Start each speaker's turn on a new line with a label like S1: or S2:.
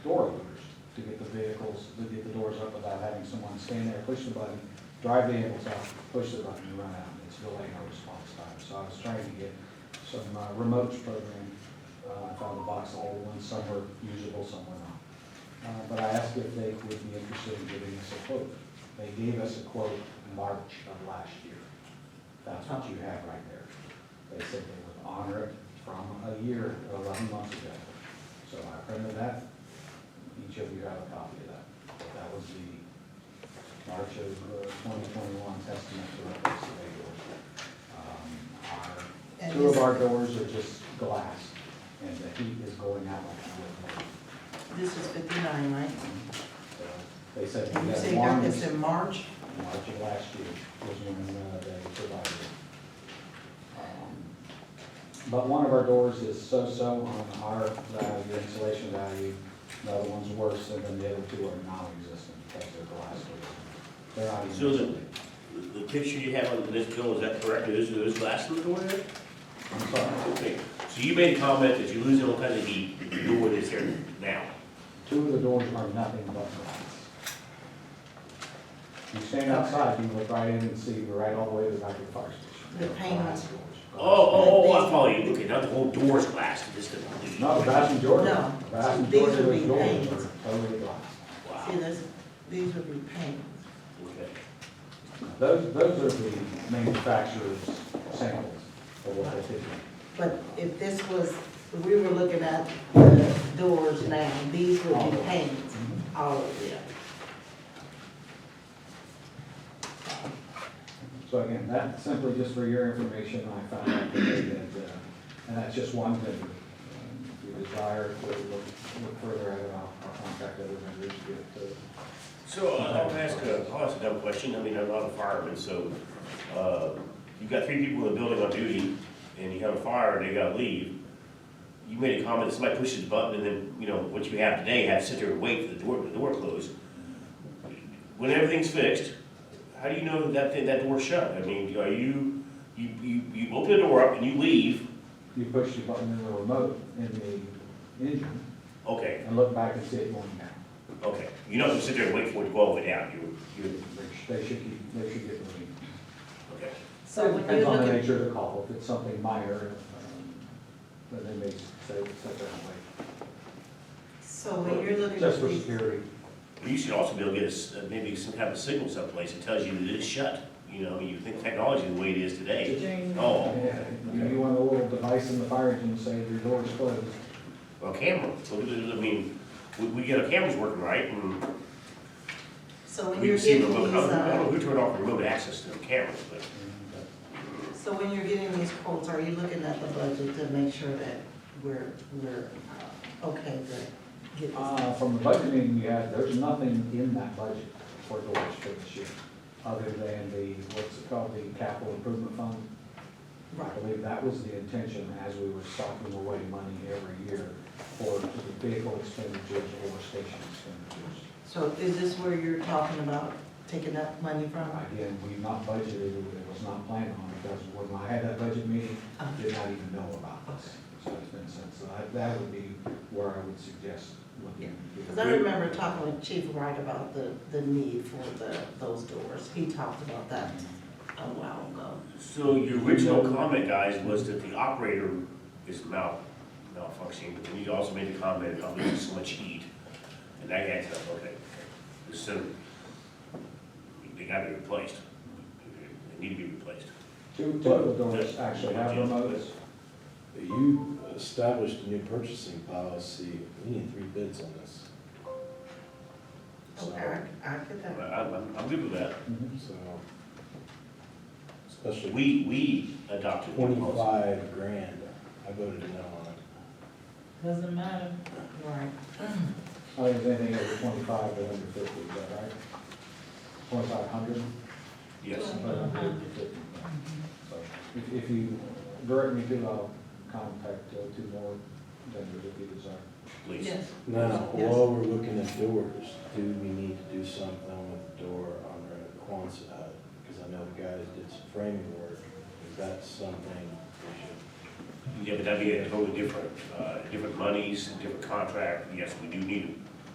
S1: vehicles to get the doors up without having someone stand there, push the button, drive the ambulance out, push the button, and run out. It's delaying our response time. So I was trying to get some uh, remotes program. Uh, I found a box of old ones, some were usable, some were not. Uh, But I asked if they would be interested in giving us a quote. They gave us a quote March of last year. That's what you have right there. They said they would honor it from a year, eleven months ago. So I printed that. Each of you have a copy of that. That was the March of uh, twenty twenty-one estimate to replace the bay doors. Um, our-
S2: And
S1: Two of
S2: this-
S1: our doors are just glass, and the heat is going out like a wood.
S2: This is fifty-nine, right?
S1: So They said we
S2: You say
S1: had
S2: you
S1: one
S2: got
S1: was
S2: this
S1: March
S2: in March?
S1: of last year was when uh, they provided it. Um, But one of our doors is so-so on our value, insulation value. The other one's worse than the other two are non-existent because they're glass doors. They're not even.
S3: Susan.
S1: insulated.
S3: The the picture you have on this bill, is that correct? Is there glass in the door there?
S1: I'm sorry.
S3: Okay, so you made a comment that you're losing all kinds of heat, the door that's here now.
S1: Two of the doors are nothing but glass. You stand outside, you look right in and see right all the way to the back of the fire station.
S2: The
S1: They're
S2: pane.
S1: glass doors.
S3: Oh, oh, oh, I follow you, okay, not the whole door's glass, just the.
S1: No, the vast majority,
S2: No.
S1: the vast
S2: So these
S1: majority of
S2: would
S1: those
S2: be
S1: doors
S2: painted.
S1: are totally glass.
S3: Wow,
S2: See, this, these would be paint.
S3: okay.
S1: Those, those are the manufacturer's samples of what they did.
S2: But if this was, if we were looking at the doors now, these would be painted, all of them.
S1: So again, that's simply just for your information, I found out today that, uh, and that's just one vendor. Um, If you desire to look, look further at it, I'll, I'll contact other vendors to get it to.
S3: So uh, I'll ask a, I'll ask a dumb question, I mean, I'm not a fireman, so, uh, you've got three people in the building on duty, and you have a fire, and they gotta leave. You made a comment, somebody pushes the button, and then, you know, what you have today, have to sit there and wait for the door, the door to close. When everything's fixed, how do you know that that, thing- that door's shut? I mean, are you, you, you, you open the door up and you leave,
S1: You push the button in the remote in the engine
S3: okay,
S1: and look back and see it going down.
S3: okay, you're not gonna sit there and wait for it to go all the way down, you, you,
S1: They should, they should keep, they should get moving.
S3: okay.
S4: So when
S1: Depends
S4: you
S1: on
S4: look
S1: the
S4: at,
S1: nature of the call, if it's something minor, um, then they may say, set that away.
S2: So when you're looking
S1: Just
S2: at
S1: for
S2: these,
S1: security.
S3: You should also be able to get a s- uh, maybe some kind of signal someplace that tells you that it's shut. You know, you think technology the way it is today. Oh,
S1: Yeah, You you want a little device in the fire engine to say your door is closed.
S3: well, camera, so, I mean, we, we get our cameras working right and
S2: so when
S3: we
S2: you're
S3: can see
S2: getting these,
S3: remote, I don't- I don't know
S2: uh,
S3: who turned off remote access to the cameras, but
S2: so when you're getting these quotes, are you looking at the budget to make sure that we're, we're uh, okay to get this?
S1: Uh, From the budget meeting you had, there's nothing in that budget for doors for this year, other than the, what's it called, the capital improvement fund. I
S2: Right,
S1: believe that was the intention as we were stocking away money every year for the vehicle expenditures or station expenditures.
S2: so is this where you're talking about taking that money from?
S1: Again, we've not budgeted, it was not planned on, because when I had that budget meeting, did not even know about this. So it's been since, so that, that would be where I would suggest looking.
S2: Because I remember talking with Chief Wright about the, the need for the, those doors. He talked about that a while ago.
S3: So your original comment, guys, was that the operator is mal, malfunctioning, but then you also made the comment about losing so much heat. And that adds up, okay. So they gotta be replaced. They need to be replaced.
S1: Two, two of the doors actually have remotes.
S4: you established a new purchasing policy, we need three bids on this. So,
S2: Okay, I, I get
S3: I-
S2: that.
S3: I'm, I'm good with that.
S1: Mhm.
S4: so, especially
S3: We, we adopted. the policy.
S4: twenty-five grand, I voted no on it.
S5: Doesn't matter.
S2: Right.
S1: I think anything over twenty-five to under fifty, is that right? Twenty-five hundred?
S3: Yes,
S1: But I'm good with it. So If, if you direct me to, I'll contact uh, two more vendors if you desire.
S3: please.
S4: Now,
S2: Yes.
S4: while we're looking at doors, do we need to do something with the door on the Quonset hut? Because I know the guys did some framing work, is that something we
S3: Yeah, but that'd be a totally different, uh, different monies, different contract. Yes, we do need